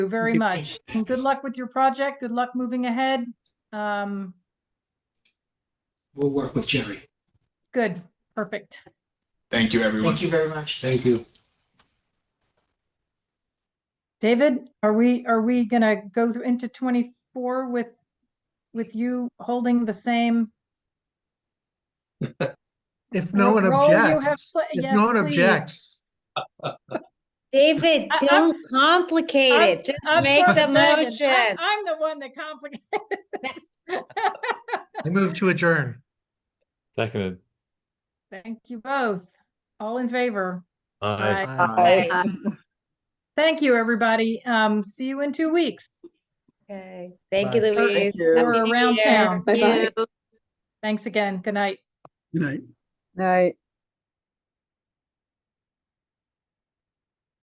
you very much. And good luck with your project. Good luck moving ahead. Um, We'll work with Jerry. good, perfect. Thank you, everyone. Thank you very much. Thank you. David, are we, are we gonna go through into twenty-four with, with you holding the same? If no one role you have objects, pla- if yes, no one please. objects, David, I- I'm- don't complicate I'm it. s- Just I'm make sorry, the Megan. motion. I'm I'm the one that complicated. I move to adjourn. Seconded. Thank you both. All in favor? Aye. Aye. Right. Thank you, everybody. Um, see you in two weeks Okay. Thank you, Bye. Louise. you. Happy We're New around Year. town. Thank you. Thanks again. Good night. Good night. Night.